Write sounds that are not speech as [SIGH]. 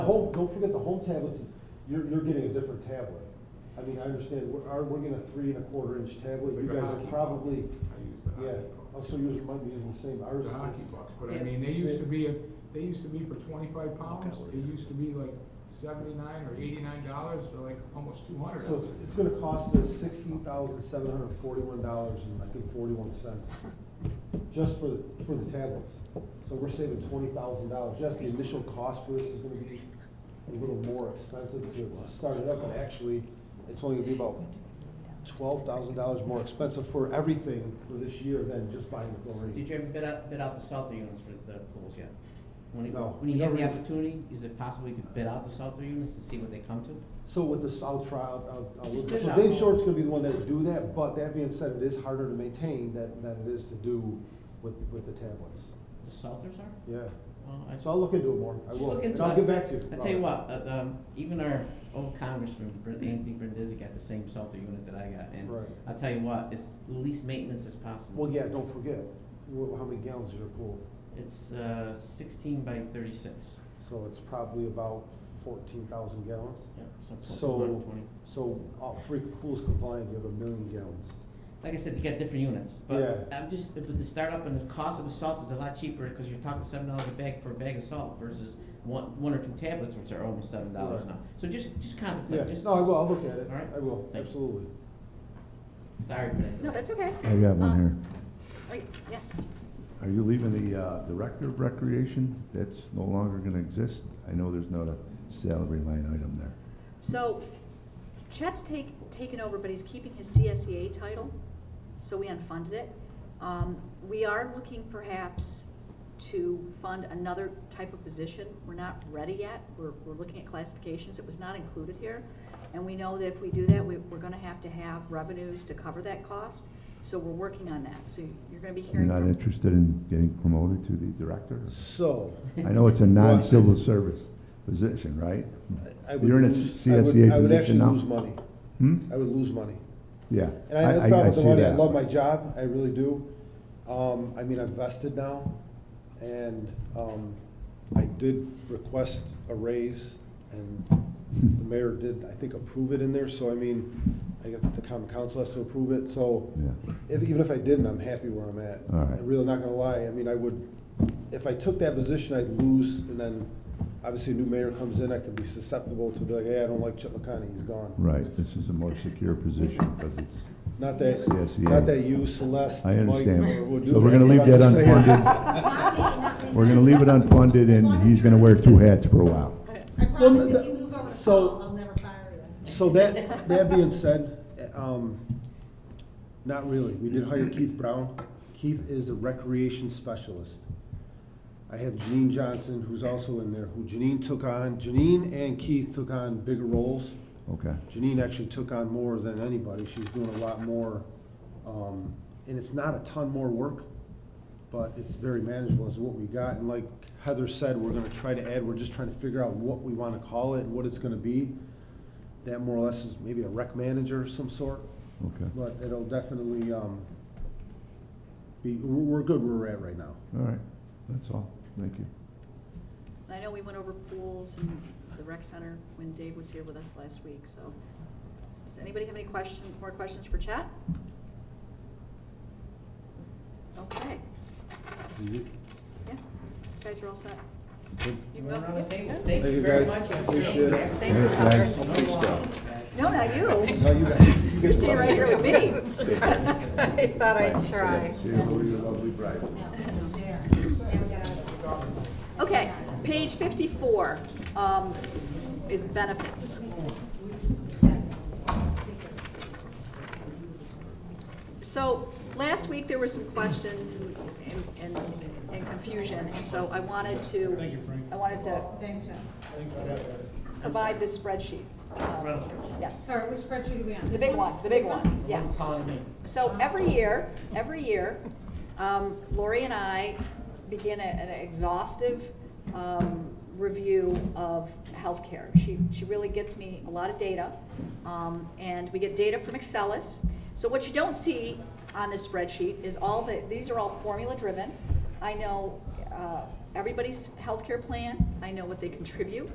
Home, don't forget the home tablets, you're, you're getting a different tablet. I mean, I understand, we're, our- we're getting a three and a quarter inch tablet, you guys are probably, I use the yeah, hockey oh, puck. so yours might be using the same, ours The hockey is. pucks, but I mean, they used to be, a- they used to be for twenty-five pounds, Okay. they used to be like seventy-nine or eighty-nine dollars, for like almost two hundred. So it's, it's gonna cost us sixteen thousand seven hundred forty-one dollars and I think forty-one cents, just for, for the tablets. So we're saving twenty thousand dollars, yes, the initial cost for this is gonna be a little more expensive to to start it up, but actually, it's only gonna be about twelve thousand dollars more expensive for everything for this year than just buying the Did chlorine. you ever bid out, bid out the shelter units for the pools yet? When you, No. when you have the Never. opportunity, is it possible you could bid out the shelter units to see what they come to? So with this, I'll try, I'll, I'll, Just look- put it uh, so out Dave there. Short's gonna be the one that do that, but that being said, it is harder to maintain than, than it is to do with, with the tablets. The shelters are? Yeah, Well, I- so I'll look into it more, I Just will, look and into I'll it. get back to you. I tell you what, uh, um, even our old congressman, Br- Anthony Brindisi, got the same shelter unit that I got, and Right. I'll tell you what, it's least maintenance as possible. Well, yeah, don't forget, wh- how many gallons is your pool? It's, uh, sixteen by thirty-six. So it's probably about fourteen thousand gallons. Yep, so. So, 20. so all three pools combined, you have a million gallons. Like I said, you got different units, but Yeah. I'm just, but the startup and the cost of the salt is a lot cheaper, because you're talking seven dollars a bag for a bag of salt versus one, one or two tablets, which are almost seven dollars Right. now. So just, just Yeah, contemplate, just. no, I will, I'll look at it, All right. I will, Thank you. absolutely. Sorry for that. No, that's okay. I got one Um, here. Wait, yes. Are you leaving the uh, Director of Recreation? That's no longer going to exist? I know there's not a salary line item there. So Chet's take, taken over, but he's keeping his CSEA title, so we unfunded it. Um, we are looking perhaps to fund another type of position. We're not ready yet. We're, we're looking at classifications. It was not included here. And we know that if we do that, we, we're gonna have to have revenues to cover that cost. So we're working on that. So you're gonna be You're hearing not from interested in getting promoted to the Director? So. I know it's a non-civil service position, right? [LAUGHS] I would You're in a lose- I would- I CSEA would position actually now? lose money, Hmm? I would lose money. Yeah. And I know it's not I with the see money, I that. love my job, I really do. Um, I mean, I'm vested now, and, um, I did request a raise, and the mayor did, I think, approve it in there, so I mean, I guess the common council has to approve it, so Yeah. if, even if I didn't, I'm happy where I'm at. All right. I'm really not gonna lie, I mean, I would, if I took that position, I'd lose, and then, obviously, a new mayor comes in, I could be susceptible to be like, hey, I don't like Chip McConaughey, he's gone. Right, this is a more secure position because it's, Not that, Yes, yeah. not that you, Celeste, I Mike, understand. or would do So we're gonna leave I'm just that saying. unfunded. We're going to leave it unfunded and he's going to wear two hats for a while. I promise th- if you move over to so- Paul, I'll never fire you. [LAUGHS] So that, that [LAUGHS] being said, um, not really. We did hire Keith Brown. Keith is the recreation specialist. I have Janine Johnson, who's also in there, who Janine took on, Janine and Keith took on bigger roles. Okay. Janine actually took on more than anybody. She's doing a lot more, um, and it's not a ton more work, but it's very manageable is what we got. And like Heather said, we're gonna try to add, we're just trying to figure out what we wanna call it and what it's gonna be. That more or less is maybe a rec manager of some sort, Okay. All but it'll definitely, um, be, we're, we're good where we're at right now. right. That's all. Thank you. I know we went over pools and the rec center when Dave was here with us last week, so. Does anybody have any questions, more questions for Chet? Okay, yeah, you guys are all set. You We're go. around the table. Thank Thank you you, very guys. much. Appreciate it. Thank you. Thanks, guys. No, [LAUGHS] not you. [LAUGHS] No, you got- you You're get sitting right here with me. I thought I'd try. See you, Louis, your lovely bride. Okay, page fifty-four, um, is benefits. So, last week, there were some questions and, and, and- and confusion, and so I wanted to. Thank you, Frank. I wanted to Thanks, John. provide this spreadsheet. Um, Yes, All right, which spreadsheet are we on? the This big one, the big one, I'm yes. calling me. So every year, every year, um, Lori and I begin a- an exhaustive um, review of healthcare. She, she really gets me a lot of data, um, and we get data from Excelis. So what you don't see on this spreadsheet is all the, these are all formula-driven. I know uh, everybody's healthcare plan, I know what they contribute,